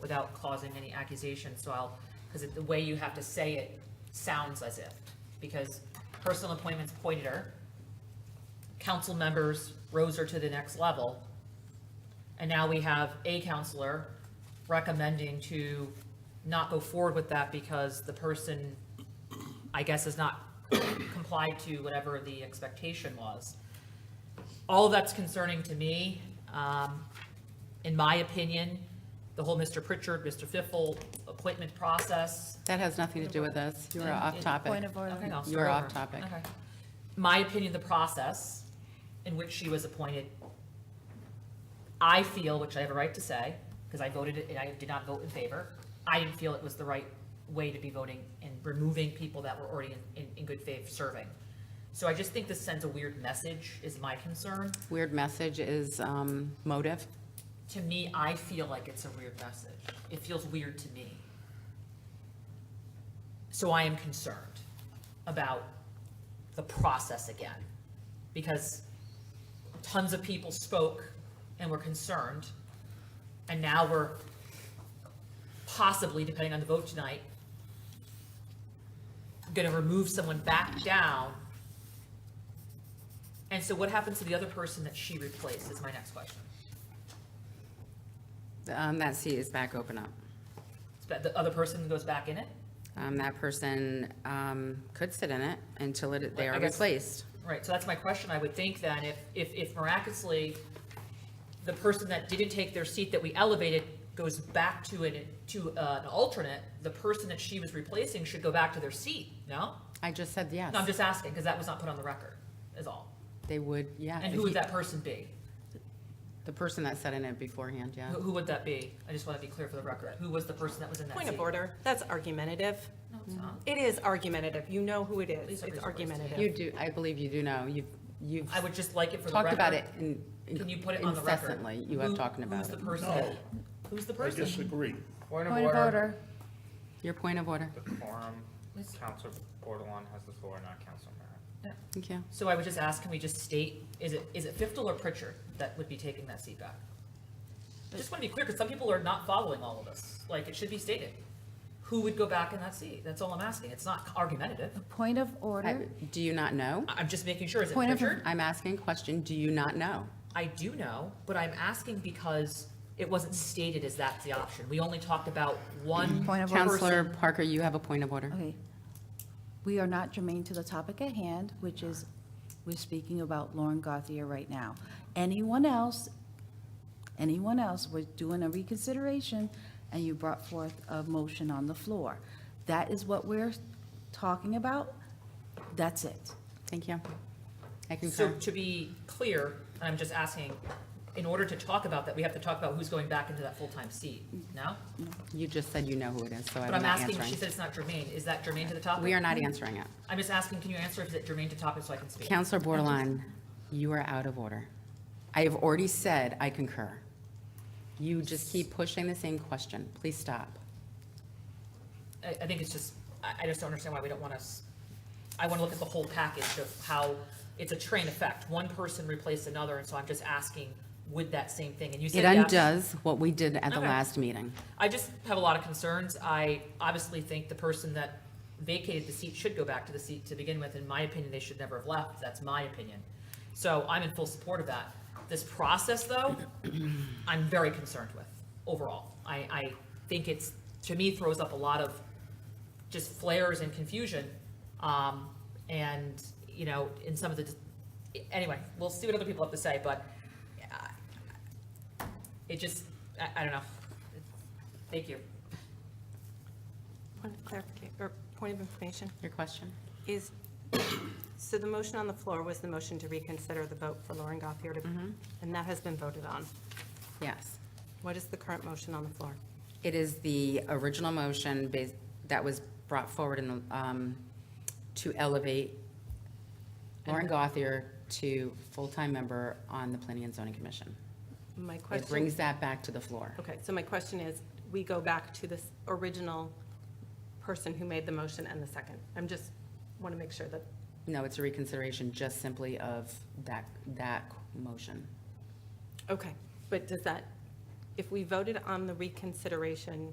without causing any accusation, so I'll, because the way you have to say it sounds as if, because personal appointments pointed her, council members rose her to the next level, and now we have a counselor recommending to not go forward with that because the person, I guess, has not complied to whatever the expectation was. All of that's concerning to me. Um, In my opinion, the whole Mr. Pritchard, Mr. Fiffle appointment process. That has nothing to do with us. You are off topic. Point of order. Okay, I'll You are start off over. topic. Okay. My opinion, the process in which she was appointed, I feel, which I have a right to say, because I voted, and I did not vote in favor, I didn't feel it was the right way to be voting and removing people that were already in, in, in good faith serving. So I just think this sends a weird message, is my concern. Weird message is um, motive. To me, I feel like it's a weird message. It feels weird to me. So I am concerned about the process again, because tons of people spoke and were concerned, and now we're possibly, depending on the vote tonight, gonna remove someone back down. And so what happens to the other person that she replaced is my next question. Um, That seat is back open up. But the other person goes back in it, Um, That person um, could sit in it until it- they I are guess- replaced. right, so that's my question, I would think then, if, if, if miraculously, the person that didn't take their seat that we elevated goes back to an, to uh, an alternate, the person that she was replacing should go back to their seat, no? I just said yes. No, I'm just asking, because that was not put on the record, is all. They would, yeah. And if who would you- that person be? The person that sat in it beforehand, yeah. Who, who would that be? I just want to be clear for the record, who was the person that was in that seat? Point of order, that's argumentative. No, it's not. It is argumentative, you know who it Please is, don't raise it's your voice. You argumentative. do, I believe you do know. You've, you've I would just like it for the record. talked about it in- Can you put it on the record? incessantly. You are Who- talking about Who's the it. person? No. Who's the I person? disagree. Point Point of order. Your point of order. The quorum, Let's- Counselor Bordelon has the floor, not Counselor Merritt. Thank you. So I would just ask, can we just state, is it, is it Fiftel or Pritchard that would be taking that seat back? I just want to be clear, because some people are not following all of this. Like, it should be stated. Who would go back in that seat? That's all I'm asking. It's not argumentative. Point of I- order. Do you not know? I- I'm just making sure. Is it Point of- Pritchard? I'm asking a question. Do you not know? I do know, but I'm asking because it wasn't stated as that's the option. We only talked about one Point of order. Counselor person. Parker, you have a point of order. Okay. We are not germane to the topic at hand, which is, we're speaking about Lauren Gauthier right now. Anyone else, anyone else, we're doing a reconsideration, and you brought forth a motion on the floor. That is what we're talking about. That's it. Thank you. I So concur. to be clear, and I'm just asking, in order to talk about that, we have to talk about who's going back into that full-time seat, no? You just said you know who it is, so I'm But I'm not asking, she answering. said it's not germane, is that germane to the topic? We are not answering it. I'm just asking, can you answer if it's germane to topic so I can speak? Counselor Bordelon, you are out of order. I have already said I concur. You just keep pushing the same question. Please stop. I, I think it's just, I, I just don't understand why we don't want us, I want to look at the whole package of how it's a train effect. One person replaced another, and so I'm just asking, would that same thing, and you said It yes. undoes what we did at the Okay. last meeting. I just have a lot of concerns. I obviously think the person that vacated the seat should go back to the seat to begin with. In my opinion, they should never have left. That's my opinion. So I'm in full support of that. This process, though, I'm very concerned with overall. I, I think it's, to me, throws up a lot of just flares and confusion. Um, and, you know, in some of the, anyway, we'll see what other people have to say, but uh, it just, I, I don't know. Thank you. Point of clarification, or point of information, Your question? is, so the motion on the floor was the motion to reconsider the vote for Lauren Gothier to, and that has been voted on. Yes. What is the current motion on the floor? It is the original motion bas- that was brought forward in, the, um, to elevate Lauren Gothier to full-time member on the Planning and Zoning Commission. My It question, brings that back to the floor. okay, so my question is, we go back to this original person who made the motion and the second. I'm just, want to make sure that, No, it's a reconsideration just simply of that, that motion. okay, but does that if we voted on the reconsideration